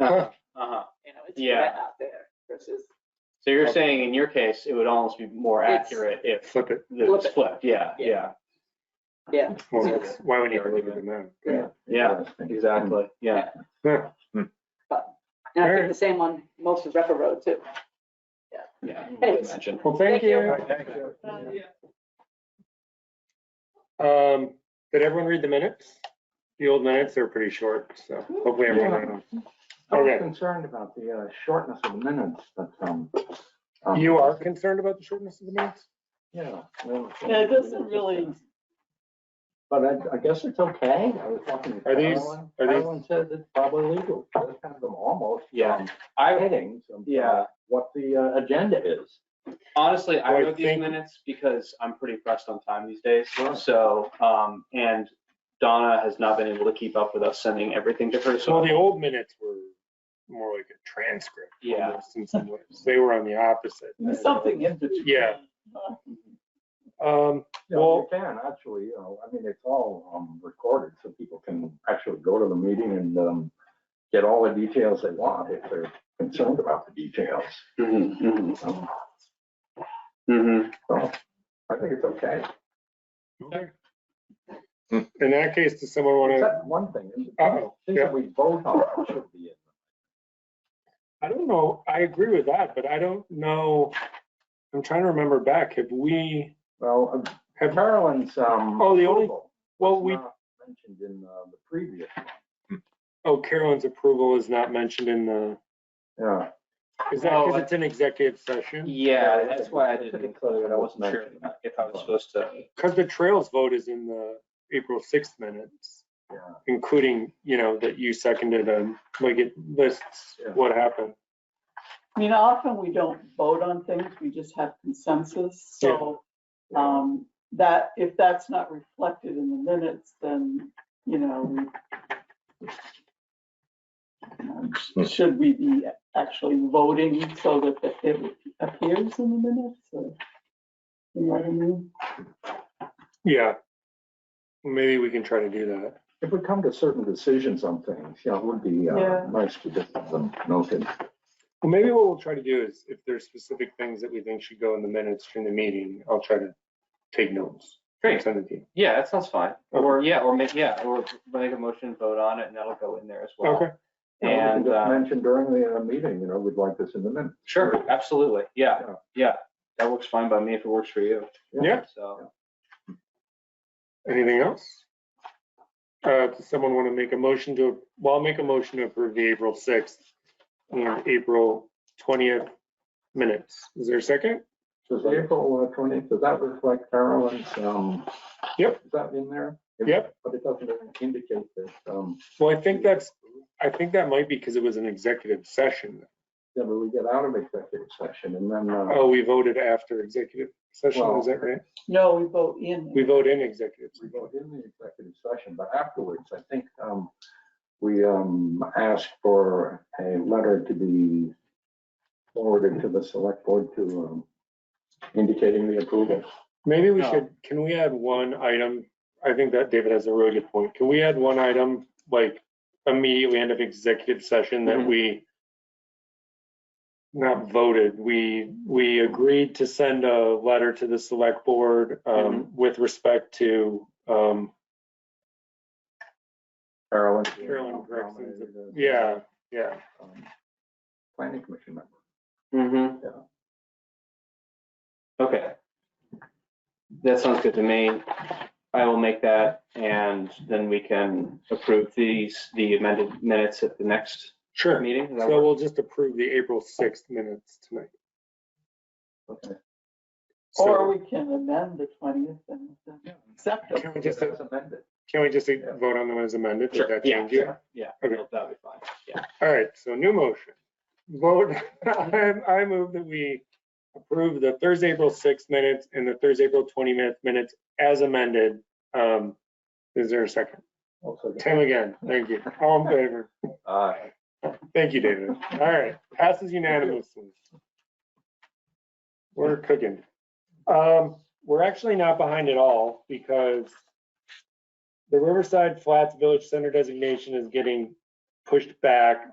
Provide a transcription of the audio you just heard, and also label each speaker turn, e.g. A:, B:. A: Uh-huh.
B: Uh-huh.
C: You know, it's
B: Yeah.
C: wet out there versus,
B: So you're saying in your case, it would almost be more
C: It's-
B: accurate if
A: Flip it.
B: it was flipped, yeah, yeah,
C: yeah,
A: Well,
C: Yeah.
A: that's- why wouldn't you leave it in there?
C: yeah.
B: yeah, exactly, yeah.
A: Yeah.
C: And I think the same on most of Repa Road too.
B: Yeah.
C: Anyways.
B: Imagine.
A: Well, thank
C: Thank you.
A: you. Um, did everyone read the minutes? The old minutes are pretty short, so hopefully everyone read them.
D: I was
A: Okay.
D: concerned about the uh, shortness of the minutes, but, um. um,
A: You are concerned about the shortness of the minutes?
D: Yeah. well,
E: Yeah, it doesn't really-
D: But I, I guess it's okay. I was talking to
A: Are these-
D: Carolyn.
A: are these-
D: Carolyn says it's probably legal. It's kind of them almost.
B: Yeah.
D: um,
B: I,
D: Headings. of, uh,
B: Yeah.
D: What the uh, agenda is.
B: honestly, I
A: Well, I
B: wrote these
A: think-
B: minutes because I'm pretty pressed on time these days, so, um, and Donna has not been able to keep up with us sending everything to her,
A: So
B: so.
A: the old minutes were more like a transcript.
B: Yeah.
A: almost in some ways. They were on the opposite.
E: Something in between.
A: Yeah. Um,
D: You know,
A: Well-
D: you can actually, you know, I mean, it's all, um, recorded, so people can actually go to the meeting and, um, get all the details they want if they're concerned about the details.
B: Mhm,
D: Um,
B: mhm, mhm.
D: So, I think it's okay.
A: in that case, does someone want to,
D: Except one thing, is
A: Uh-oh,
D: things
A: Mm. Uh-huh. yeah.
D: that we vote on should be in.
A: I don't know, I agree with that, but I don't know. I'm trying to remember back. Have we,
D: Well, um,
A: Have-
D: Carolyn's, um.
A: Oh, the only-
D: approval
A: well,
D: was
A: we,
D: not Mentioned in, uh, the previous, one.
A: oh, Carolyn's approval is not mentioned in the,
D: yeah.
A: is that
B: Well,
A: because
B: I-
A: it's an executive session?
B: Yeah, that's why I didn't include it, I
D: It's
B: wasn't sure
D: mentioned.
B: if I was supposed to.
A: Because the trails vote is in the April 6th minutes,
D: Yeah.
A: including, you know, that you seconded and like it lists
D: Yeah.
A: what happened.
E: I mean, often we don't vote on things, we just have consensus, so, um, that, if that's not reflected in the minutes, then, you know, we- Um,
D: Hmm.
E: sh- should we be actually voting so that it- it appears in the minutes, or, you know what I mean?
A: Yeah. Maybe we can try to do that.
D: If we come to certain decisions on things, you know, it would be, uh,
E: Yeah.
D: nice to get them noted.
A: Well, maybe what we'll try to do is if there's specific things that we think should go in the minutes during the meeting, I'll try to take notes.
B: Great.
A: Send it to you.
B: Yeah, that sounds fine. Or, yeah, or make, yeah, or make a motion, and vote on it, and that'll go in there as well.
A: Okay,
D: You know, we can
B: And,
D: Just
B: uh,
D: mentioned during the uh, meeting, you know, we'd like this in the minutes.
B: sure, absolutely, yeah,
D: Yeah.
B: yeah. That works fine by me if it works for you,
A: Yeah.
B: so.
A: anything else? Uh, does someone want to make a motion to, well, I'll make a motion to approve the April 6th and April 20th minutes. Is there a second?
D: Does April twentieth, does that reflect Carolyn's, um?
A: Yep.
D: Is that in there?
A: Yep.
D: But it doesn't indicate that, um,
A: Well, I think that's, I think that might be because it was an executive session.
D: that we get out of executive session and then, uh,
A: Oh, we voted after executive session, is that right?
E: No, we vote in.
A: We vote in executive.
D: we go in the executive session, but afterwards, I think, um, we, um, asked for a letter to be forwarded to the select board to, um, indicating the approval.
A: Maybe we
B: No.
A: should, can we add one item? I think that David has a really good point. Can we add one item, like immediately end of executive session that
B: Mhm.
A: we not voted, we, we agreed to send a letter to the select board um,
B: Mm-hmm.
A: with respect to, um,
D: Carolyn. uh,
A: Carolyn Gregson. yeah, yeah.
D: um, Planning commission member.
B: Mm-hmm.
D: Yeah.
B: Okay. That sounds good to me. I will make that, and then we can approve these, the amended minutes at the next
A: Sure.
B: meeting. Does that
A: So
B: work?
A: we'll just approve the April 6th minutes tonight.
D: Okay.
E: Or
A: So-
E: we can amend the twentieth and accept it.
A: Can we just,
D: That's amended.
A: can we just vote on them as amended? Does
B: Sure,
A: that
B: yeah,
A: change you?
B: sure, Yeah,
A: Okay.
B: that'll that'll be fine, yeah.
A: All right, so new motion. Vote, I, I move that we approve the Thursday, April 6th minutes and the Thursday, April 20 minute minutes as amended. Um, Is there a second?
D: Also,
A: Tim again, thank you. All in favor?
D: uh,
A: Thank you, David. All right, passes unanimously. We're cooking. Um, we're actually not behind at all because the Riverside Flats Village Center designation is getting pushed back